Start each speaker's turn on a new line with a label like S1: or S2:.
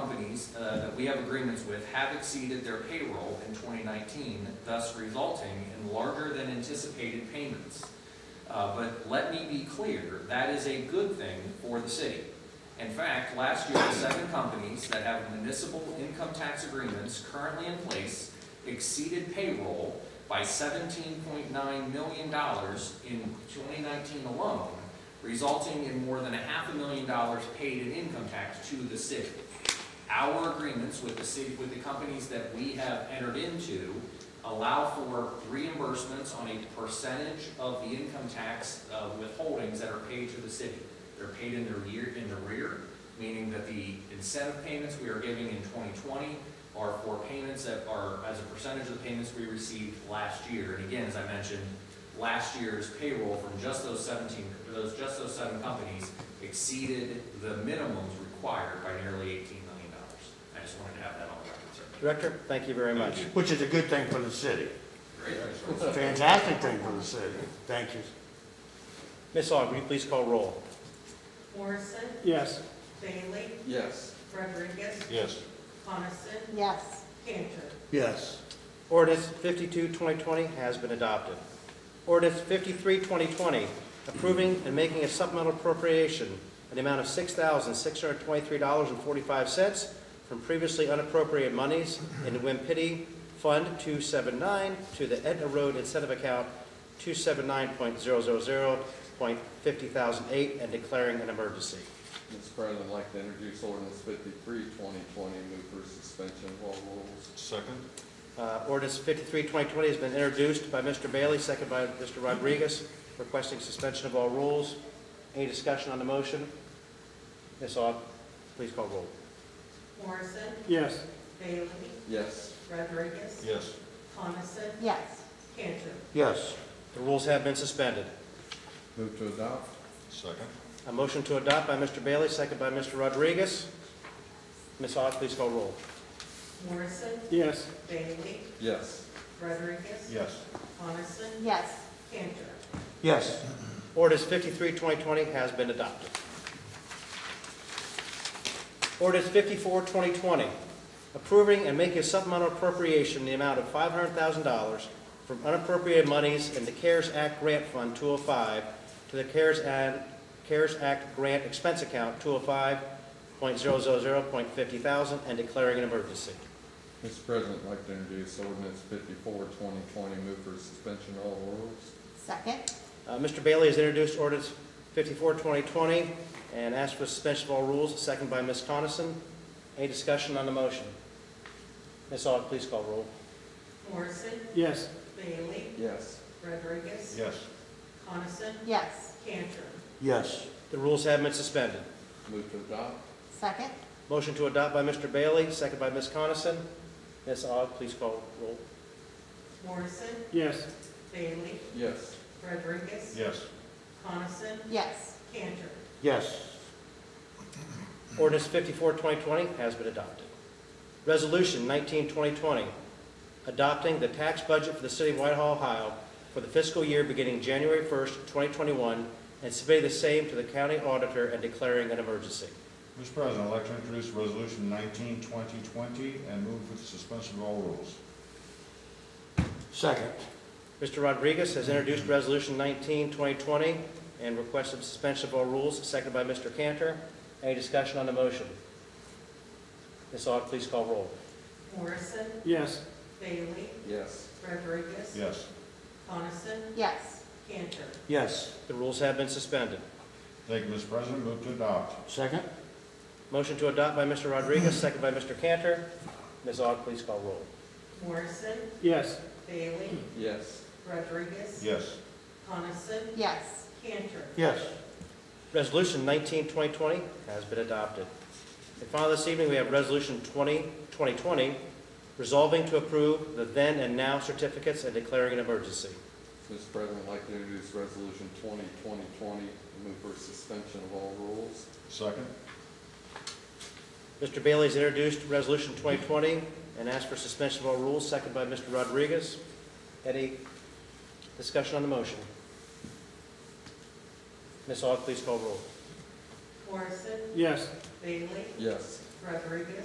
S1: companies uh, that we have agreements with have exceeded their payroll in 2019, thus resulting in larger than anticipated payments. Uh, But let me be clear, that is a good thing for the city. In fact, last year, the seven companies that have municipal income tax agreements currently in place exceeded payroll by $17.9 million in 2019 alone, resulting in more than a half a million dollars paid in income tax to the city. Our agreements with the city, with the companies that we have entered into allow for reimbursements on a percentage of the income tax uh, withholdings that are paid to the city. They're paid in their year, in the rear, meaning that the incentive payments we are giving in 2020 are for payments that are as a percentage of the payments we received last year. And again, as I mentioned, last year's payroll from just those 17, those, just those seven companies exceeded the minimums required by nearly $18 million. I just wanted to have that on the record, sir.
S2: Director, thank you very much.
S3: Which is a good thing for the city. It's a fantastic thing for the city. Thank you.
S2: Ms. Aug, will you please call roll?
S4: Morrison,
S5: yes,
S4: Bailey,
S6: yes,
S4: Rodriguez,
S3: Yes.
S4: Coniston,
S7: yes,
S4: Cantor.
S3: Yes.
S2: Ordinance 52, 2020 has been adopted. Ordinance 53, 2020, approving and making a supplemental appropriation in the amount of $6,623.45 from previously unappropriated monies in the Wimpity Fund 279 to the Etna Road Incentive Account 279.000.50,008 and declaring an emergency.
S6: Mr. President, I'd like to introduce ordinance 53 2020. move for suspension of all rules.
S3: Second?
S2: Uh, Ordinance 53, 2020 has been introduced by Mr. Bailey, second by Mr. Rodriguez, requesting suspension of all rules. Any discussion on the motion? Ms. Aug, please call roll.
S4: Morrison,
S5: yes,
S4: Bailey,
S6: Yes,
S4: Rodriguez,
S3: Yes.
S4: Coniston,
S7: yes,
S4: Cantor.
S3: Yes.
S2: The rules have been suspended.
S6: move to adopt.
S3: Second?
S2: A motion to adopt by Mr. Bailey, second by Mr. Rodriguez. Ms. Aug, please call roll.
S4: Morrison,
S5: yes,
S4: Bailey,
S6: Yes,
S4: Rodriguez,
S3: Yes.
S4: Coniston,
S7: yes,
S4: Cantor.
S3: Yes.
S2: Ordinance 53, 2020 has been adopted. Ordinance 54, 2020, approving and making a supplemental appropriation in the amount of $500,000 from unappropriated monies in the CARES Act Grant Fund 205 to the CARES Ad- CARES Act Grant Expense Account 205.000.50,000 and declaring an emergency.
S6: Mr. President, I'd like to introduce ordinance 54 2020. move for suspension of all rules.
S7: second,
S2: Uh, Mr. Bailey has introduced ordinance 54, 2020, and asked for suspension of all rules, second by Ms. Coniston. Any discussion on the motion? Ms. Aug, please call roll.
S4: Morrison,
S5: yes,
S4: Bailey,
S6: Yes,
S4: Rodriguez,
S3: Yes.
S4: Coniston,
S7: yes,
S4: Cantor.
S3: Yes.
S2: The rules have been suspended.
S6: move to adopt.
S7: second,
S2: Motion to adopt by Mr. Bailey, second by Ms. Coniston. Ms. Aug, please call roll.
S4: Morrison,
S5: yes,
S4: Bailey,
S6: Yes,
S4: Rodriguez,
S3: Yes.
S4: Coniston,
S7: yes,
S4: Cantor.
S3: Yes.
S2: Ordinance 54, 2020 has been adopted. Resolution 19, 2020, adopting the tax budget for the city of Whitehall, Ohio for the fiscal year beginning January 1st, 2021, and submitting the same to the county auditor and declaring an emergency.
S8: Mr. President, I'd like to introduce Resolution 19, 2020, and move for the suspension of all rules.
S3: Second?
S2: Mr. Rodriguez has introduced Resolution 19, 2020, and requested suspension of all rules, seconded by Mr. Cantor. Any discussion on the motion? Ms. Aug, please call roll.
S4: Morrison,
S5: yes,
S4: Bailey,
S6: yes,
S4: Rodriguez,
S8: Yes.
S4: Coniston,
S7: yes,
S4: Cantor.
S3: Yes.
S2: The rules have been suspended.
S8: Thank you, Mr. President. Move to adopt.
S3: Second?
S2: Motion to adopt by Mr. Rodriguez, second by Mr. Cantor. Ms. Aug, please call roll.
S4: Morrison,
S5: yes,
S4: Bailey,
S6: yes,
S4: Rodriguez,
S8: Yes.
S4: Coniston,
S7: yes,
S4: Cantor.
S3: Yes.
S2: Resolution 19-2020 has been adopted. And finally, this evening, we have Resolution 20-2020, resolving to approve the then and now certificates and declaring an emergency.
S6: Mr. President, I'd like to introduce resolution 20 2020. move for suspension of all rules.
S8: Second?
S2: Mr. Bailey has introduced Resolution 2020 and asked for suspension of all rules, second by Mr. Rodriguez. Any discussion on the motion? Ms. Aug, please call roll.
S4: Morrison,
S5: yes.
S4: Bailey,
S6: Yes.
S4: Rodriguez,